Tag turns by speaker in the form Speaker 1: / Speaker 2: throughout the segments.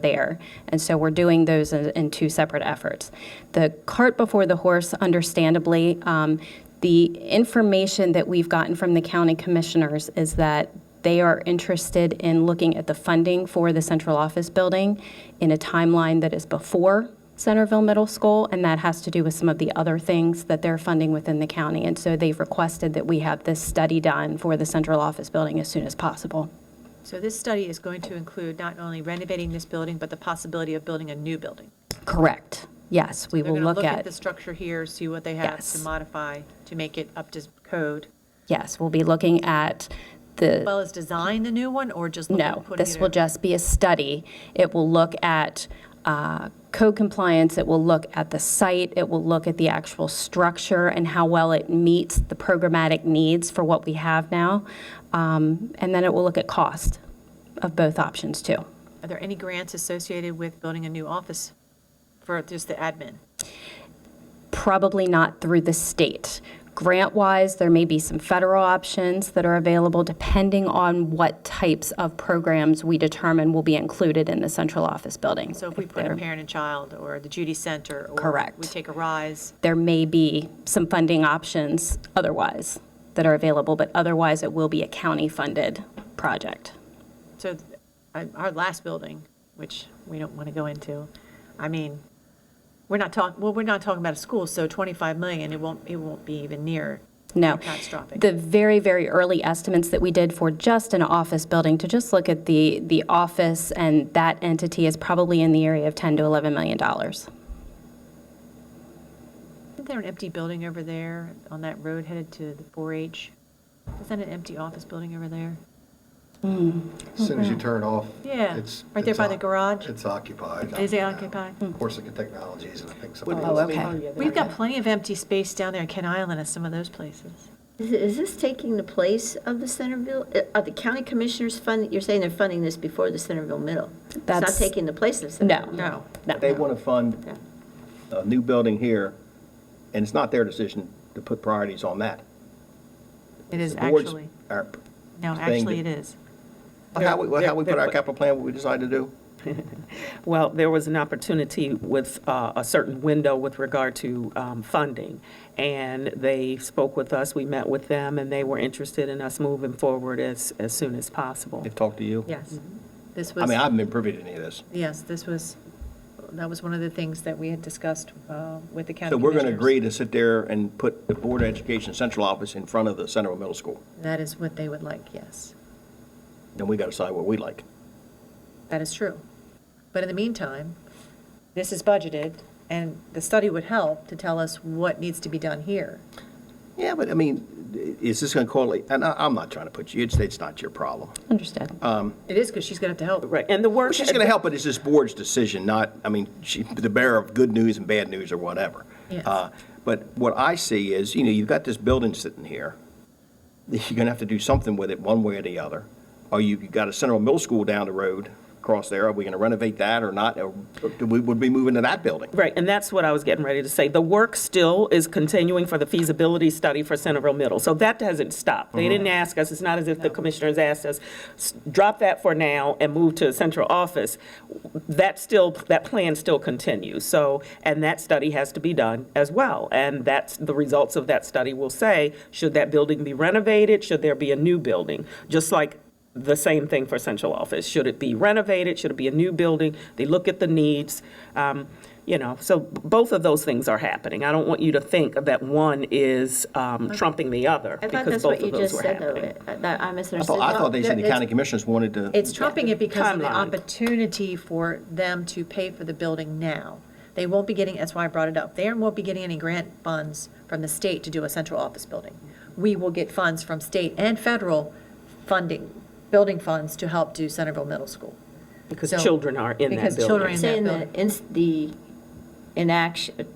Speaker 1: there. And so we're doing those in, in two separate efforts. The cart before the horse, understandably, um, the information that we've gotten from the county commissioners is that they are interested in looking at the funding for the central office building in a timeline that is before Centerville Middle School, and that has to do with some of the other things that they're funding within the county. And so they've requested that we have this study done for the central office building as soon as possible.
Speaker 2: So this study is going to include not only renovating this building, but the possibility of building a new building.
Speaker 1: Correct. Yes, we
Speaker 2: They're
Speaker 1: will
Speaker 2: going to
Speaker 1: look at.
Speaker 2: the structure here, see what they have to
Speaker 1: Yes.
Speaker 2: modify to make it up to code,
Speaker 1: Yes, we'll be looking at
Speaker 2: as
Speaker 1: the,
Speaker 2: well as design the new one, or just? look at
Speaker 1: no,
Speaker 2: putting
Speaker 1: this
Speaker 2: it
Speaker 1: will
Speaker 2: in?
Speaker 1: just be a study. It will look at uh, code compliance, it will look at the site, it will look at the actual structure and how well it meets the programmatic needs for what we have now. Um, And then it will look at cost of both options, too.
Speaker 2: Are there any grants associated with building a new office for just the admin?
Speaker 1: probably not through the state. Grant wise, there may be some federal options that are available depending on what types of programs we determine will be included in the central office building.
Speaker 2: So if we put a parent and child, or the Judy Center? Or
Speaker 1: Correct.
Speaker 2: we take a rise,
Speaker 1: There may be some funding options otherwise that are available, but otherwise it will be a county funded project.
Speaker 2: so th- I- our last building, which we don't want to go into, I mean, we're not talking, well, we're not talking about a school, so 25 million, it won't, it won't be even near
Speaker 1: No.
Speaker 2: catastrophic.
Speaker 1: The very, very early estimates that we did for just an office building, to just look at the, the office and that entity is probably in the area of 10 to 11 million dollars.
Speaker 2: Isn't there an empty building over there on that road headed to the 4-H? Is that an empty office building over there?
Speaker 3: As soon as you turn off.
Speaker 2: Mm-hmm. Yeah,
Speaker 3: it's-
Speaker 2: right there
Speaker 3: it's
Speaker 2: by the
Speaker 3: oc-
Speaker 2: garage.
Speaker 3: It's occupied.
Speaker 2: Is it
Speaker 3: now.
Speaker 2: occupied? Hmm.
Speaker 3: Corsica Technologies, and I think something
Speaker 1: Oh,
Speaker 3: else.
Speaker 1: okay.
Speaker 2: We've got plenty of empty space down there in Ken Island and some of those places.
Speaker 4: Is, is this taking the place of the Centerville, uh, are the county commissioners funding, you're saying they're funding this before the Centerville Middle? It's not
Speaker 1: That's-
Speaker 4: taking the place of
Speaker 1: No.
Speaker 4: Centerville?
Speaker 2: No.
Speaker 1: No.
Speaker 5: They want to fund a new building here, and it's not their decision to put priorities on that.
Speaker 2: It is
Speaker 5: The board's-
Speaker 2: actually,
Speaker 5: our-
Speaker 2: no,
Speaker 5: thing
Speaker 2: actually it
Speaker 5: that-
Speaker 2: is.
Speaker 5: How we, how we put our
Speaker 6: Yeah.
Speaker 5: capital plan, what we decide to do?
Speaker 6: Well, there was an opportunity with uh, a certain window with regard to um, funding, and they spoke with us, we met with them, and they were interested in us moving forward as, as soon as possible.
Speaker 5: They've talked to you?
Speaker 2: Yes. This
Speaker 5: I
Speaker 2: was,
Speaker 5: mean, I haven't been privy to any of this.
Speaker 2: yes, this was, that was one of the things that we had discussed uh, with the county
Speaker 5: So we're going to
Speaker 2: commissioners.
Speaker 5: agree to sit there and put the Board of Education Central Office in front of the Central Middle School,
Speaker 2: That is what they would like, yes.
Speaker 5: then we got to decide what we like.
Speaker 2: That is true. But in the meantime, this is budgeted, and the study would help to tell us what needs to be done here.
Speaker 5: Yeah, but I mean, is this going to correlate, and I, I'm not trying to put you, it's, it's not your problem.
Speaker 1: Understood.
Speaker 2: It is, because she's going to have to help.
Speaker 6: Right, and the
Speaker 5: Well,
Speaker 6: work.
Speaker 5: she's going to help, but it's this board's decision, not, I mean, she, the bearer of good news and bad news or whatever.
Speaker 2: Yes.
Speaker 5: Uh, But what I see is, you know, you've got this building sitting here. You're going to have to do something with it one way or the other. Or you- you've got a Central Middle School down the road across there. Are we going to renovate that or not? Or do we, would we move into that building?
Speaker 6: Right, and that's what I was getting ready to say. The work still is continuing for the feasibility study for Centerville Middle, so that doesn't stop. They didn't ask us, it's not as if the commissioners asked us, "S- drop that for now and move to a central office. That still, that plan still continues, so, and that study has to be done as well. And that's, the results of that study will say, should that building be renovated? Should there be a new building? Just like the same thing for central office. Should it be renovated? Should it be a new building? They look at the needs, um, you know, so b- both of those things are happening. I don't want you to think that one is um, trumping the other,
Speaker 4: I thought
Speaker 6: because
Speaker 4: that's what
Speaker 6: both
Speaker 4: you
Speaker 6: of those
Speaker 4: just
Speaker 6: were
Speaker 4: said, though.
Speaker 6: happening.
Speaker 4: It- I that- I
Speaker 5: I
Speaker 4: misunderstood.
Speaker 5: thought, I thought they said the
Speaker 2: It's-
Speaker 5: county commissioners wanted to,
Speaker 2: It's trumping it because of the
Speaker 6: Timeline.
Speaker 2: opportunity for them to pay for the building now. They won't be getting, that's why I brought it up, they won't be getting any grant funds from the state to do a central office building. We will get funds from state and federal funding, building funds to help do Centerville Middle School.
Speaker 6: Because
Speaker 2: So-
Speaker 6: children are in that
Speaker 2: because children
Speaker 6: building.
Speaker 2: in that
Speaker 4: Saying
Speaker 2: building.
Speaker 4: that ins- the inaction,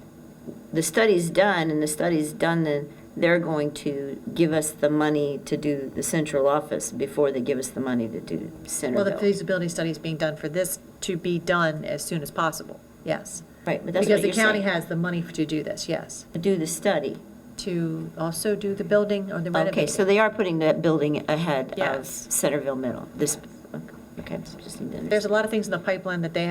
Speaker 4: the study's done, and the study's done, then they're going to give us the money to do the central office before they give us the money to do
Speaker 2: Well, the
Speaker 4: Centerville.
Speaker 2: feasibility study is being done for this to be done as soon as possible, yes.
Speaker 4: Right, but that's
Speaker 2: Because
Speaker 4: what
Speaker 2: the
Speaker 4: you're
Speaker 2: county
Speaker 4: saying,
Speaker 2: has the money to do this, yes.
Speaker 4: do the study.
Speaker 2: To also do the building or the
Speaker 4: Okay,
Speaker 2: renovation.
Speaker 4: so they are putting that building ahead of
Speaker 2: Yes.
Speaker 4: Centerville Middle, this, okay, just need to understand.
Speaker 2: There's a lot of things in the pipeline that they have